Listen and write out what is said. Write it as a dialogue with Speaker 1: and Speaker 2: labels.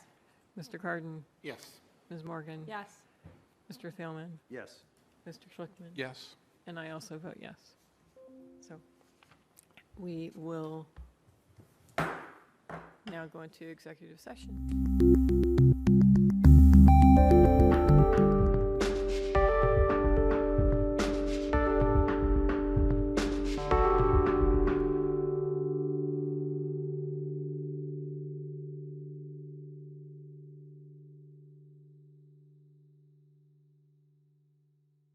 Speaker 1: Mr. Carden,
Speaker 2: Yes.
Speaker 1: Ms. Morgan.
Speaker 3: Yes.
Speaker 1: Mr. Thielman,
Speaker 4: Yes.
Speaker 1: Mr. Schlickman.
Speaker 2: Yes.
Speaker 1: And I also vote yes. So we will now go into executive session.